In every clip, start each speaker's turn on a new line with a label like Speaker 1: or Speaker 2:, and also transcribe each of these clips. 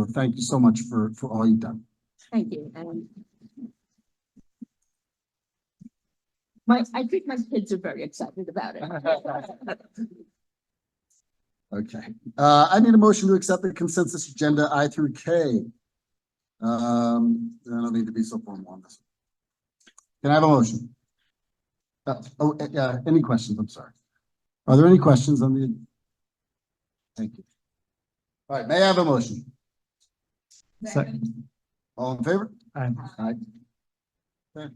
Speaker 1: So Thank you so much for, for all you've done.
Speaker 2: Thank you, Um, and. My, I think my kids are very excited about it.
Speaker 1: Okay, uh, I need a motion to accept the consensus agenda I through K. Um, I don't need to be so formal on this. Can I have a motion? Uh, oh, uh, uh, any questions? I'm sorry. Are there any questions on the? Thank you. All right, may I have a motion?
Speaker 2: Second.
Speaker 1: All in favor?
Speaker 3: Aye.
Speaker 1: Aye. Okay.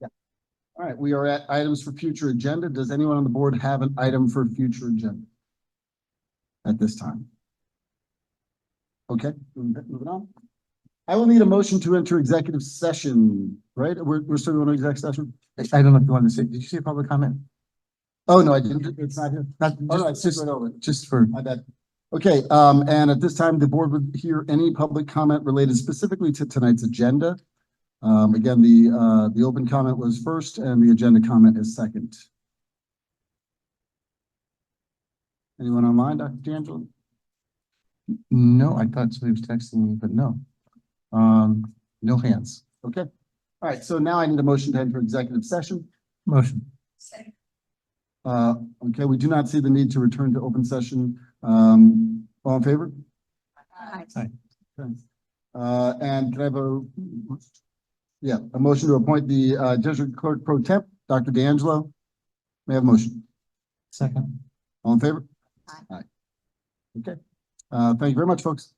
Speaker 1: Yeah. All right, we are at items for future agenda. Does anyone on the board have an item for future agenda? At this time? Okay, moving moving on. I will need a motion to enter executive session, right? We're, we're still going to exec session?
Speaker 3: I don't know if you wanted to say, did you say public comment?
Speaker 1: Oh, no, I didn't. It's not here.
Speaker 3: Not,
Speaker 1: Oh, no, I
Speaker 3: just,
Speaker 1: skipped
Speaker 3: just,
Speaker 1: right over. it.
Speaker 3: just for,
Speaker 1: My bad. Okay, um, and at this time, the board would hear any public comment related specifically to tonight's agenda. Um, again, the, uh, the open comment was first and the agenda comment is second. Anyone online, Dr. D'Angelo?
Speaker 3: no, I thought somebody was texting me, but no. Um, no hands.
Speaker 1: Okay. All right, so now I need a motion to enter executive session.
Speaker 3: Motion.
Speaker 1: Uh, okay, we do not see the need to return to open session. Um, all in favor? Okay. Uh, and can I have a, yeah, a motion to appoint the, uh, district clerk pro temp, Dr. D'Angelo? May I have a motion?
Speaker 3: Second.
Speaker 1: All in favor?
Speaker 2: Aye.
Speaker 1: Okay. Uh, thank you very much, folks.